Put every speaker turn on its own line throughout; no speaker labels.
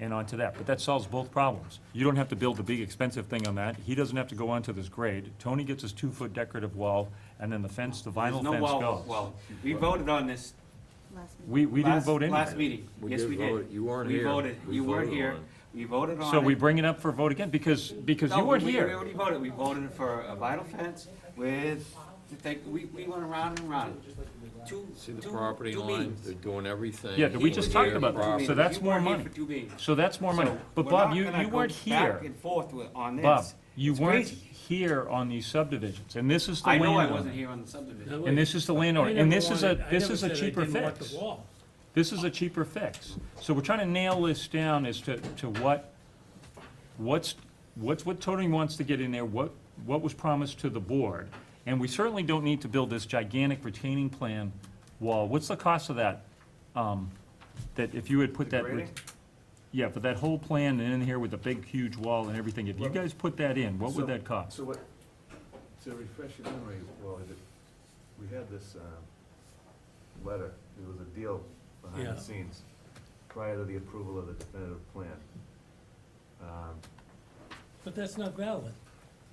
and onto that, but that solves both problems. You don't have to build the big expensive thing on that, he doesn't have to go onto this grade, Tony gets his two-foot decorative wall, and then the fence, the vinyl
There's no
fence
wall-
goes.
Well, we voted on this.
last meeting.
We, we didn't
last-
vote in.
Last meeting,
We
yes,
did
we
vote.
did.
You weren't
We
here.
voted,
We
you weren't
voted
here,
on
we voted on it.
So we bring it up for vote again, because, because
No,
you weren't
we- We
here.
already voted, we voted for a vital fence with, the thing- we, we went around and around. Two,
See the
two-
property
two
line,
meetings.
they're doing everything.
Yeah, we just talked about
Two
that.
meetings.
So that's
You
more
weren't here
money.
for two meetings.
So that's more money.
So
But
we're
Bob,
not
you,
gonna
you
go
weren't
Back
here.
and forth with, on this.
Bob, you
It's
weren't
crazy.
here on these subdivisions, and this is the
I know I
landowner.
wasn't here on the subdivision.
And this is the landowner,
I
and
never
this is
wanted-
a,
I
this
never
is a
said I
cheaper
didn't want the
fix.
wall.
This is a cheaper fix. So we're trying to nail this down as to, to what, what's, what's what Tony wants to get in there, what, what was promised to the board. And we certainly don't need to build this gigantic retaining plan wall. What's the cost of that? Um, That if you had put
The
that. re-
grading?
Yeah, but that whole plan and in here with the big huge wall and everything, if you guys put that in, what would
So-
that cost?
So what, to refresh your memory, well, is it, we had this, uh, letter, there was a deal behind
Yeah.
the scenes prior to the approval of the definitive plan. Um,
But that's not valid.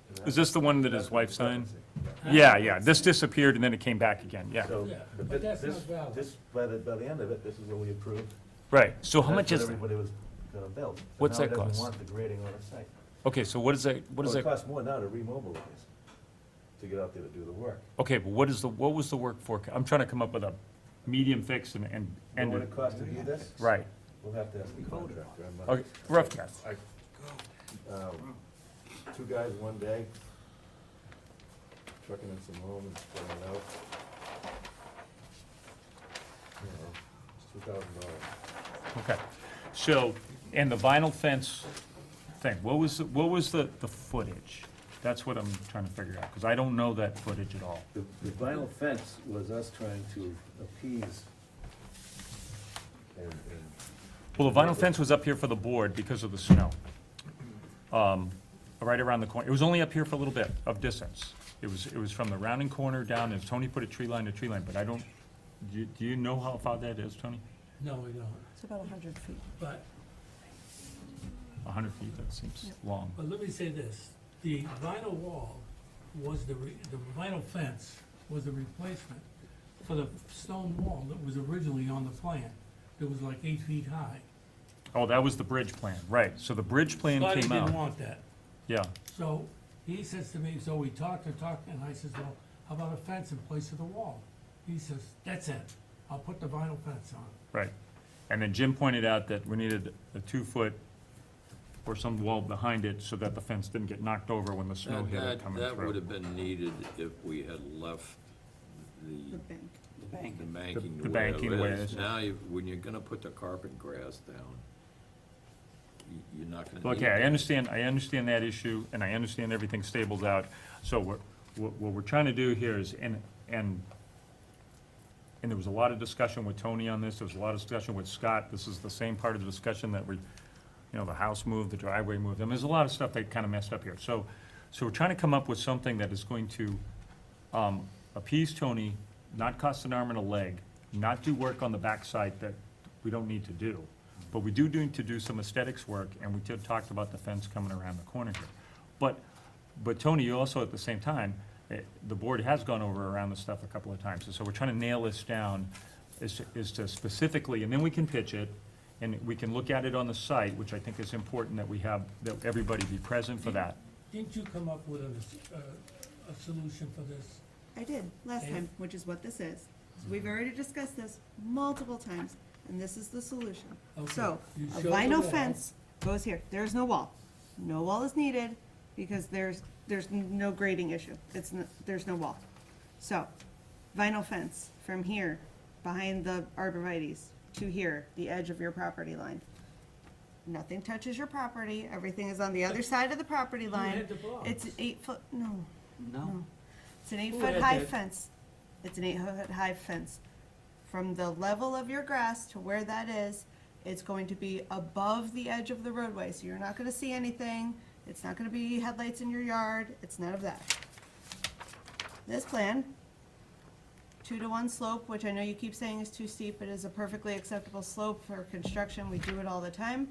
and that-
Is this the one that
that's
his wife signed?
Huh?
Yeah, yeah, this disappeared and then it came back again, yeah.
So,
Yeah,
but
but that's
thi- this,
not valid.
this, by the, by the end of it, this is what we approved.
Right, so how
That's
much
what
is,
Everybody was gonna build. So
What's
now
that
He
cost?
doesn't want the grading on the site.
okay, so what is that, what is
Well, It
that,
costs more now to remobilize, to get out there to do the work.
okay, but what is the, what was the work for, I'm trying to come up with a medium fix and, and,
And
and,
what it costs to do this?
right.
We'll have to ask the contractor. I'm not-
Okay, rough guess.
Um, Two guys, one day, trucking in some home and spreading it out. You know, it's two thousand dollars.
Okay, so, and the vinyl fence thing, what was, the- what was the, the footage? That's what I'm trying to figure out, because I don't know that footage at all.
The the vinyl fence was us trying to appease and, and
Well, the vinyl fence was up here for the board because of the snow. Um, Right around the corner, it was only up here for a little bit of distance. It was, it was from the rounding corner down, and Tony put a tree line to tree line, but I don't, do you- do you know how far that is, Tony?
No, we don't.
It's about hundred feet.
But,
A hundred feet, that seems long.
but let me say this, the vinyl wall was the, re- the vinyl fence was the replacement for the stone wall that was originally on the plan. It was like eight feet high.
Oh, that was the bridge plan, right, so the bridge plan
Scotty
came
didn't
out.
want that.
Yeah,
So he says to me, so we talked and talked, and I says, well, how about a fence in place of the wall? He says, that's it, I'll put the vinyl fence on.
right. And then Jim pointed out that we needed a two-foot or some wall behind it so that the fence didn't get knocked over when the snow
That,
hit it
that,
coming
that would
through.
have been needed if we had left the,
The bank.
The bank.
the banking
The-
the
the
way
banking
it
way it
is.
is.
Now, you- when you're gonna put the carpet grass down, you- you're not gonna need
Okay, I
that.
understand, I understand that issue, and I understand everything stables out. So what, what what we're trying to do here is, and, and, and there was a lot of discussion with Tony on this, there was a lot of discussion with Scott. This is the same part of the discussion that we, you know, the house moved, the driveway moved. I mean, there's a lot of stuff that kind of messed up here. So, so we're trying to come up with something that is going to um, appease Tony, not cost an arm and a leg, not do work on the backside that we don't need to do. But we do need to do some aesthetics work, and we did talked about the fence coming around the corner here. But, but Tony, you also, at the same time, eh, the board has gone over around this stuff a couple of times, and so we're trying to nail this down as to, as to specifically, and then we can pitch it, and we can look at it on the site, which I think is important that we have, that everybody be present for that.
Didn't you come up with a, a- a solution for this?
I did, last
Okay.
time, which is what this is. So
Mm-hmm.
We've already discussed this multiple times, and this is the solution.
Okay,
So,
you
a
show the
vinyl
wall.
fence goes here, there is no wall. No wall is needed, because there's, there's no grading issue, it's, n- there's no wall. So, vinyl fence from here, behind the arborvitae's, to here, the edge of your property line. Nothing touches your property, everything is on the other side of the property line.
had the blocks.
It's an eight foot, no,
No,
it's an eight
Who
foot
had
high
that?
fence. It's an eight foot high fence. From the level of your grass to where that is, it's going to be above the edge of the roadway, so you're not gonna see anything. It's not gonna be headlights in your yard, it's none of that. This plan, two to one slope, which I know you keep saying is too steep, but is a perfectly acceptable slope for construction, we do it all the time.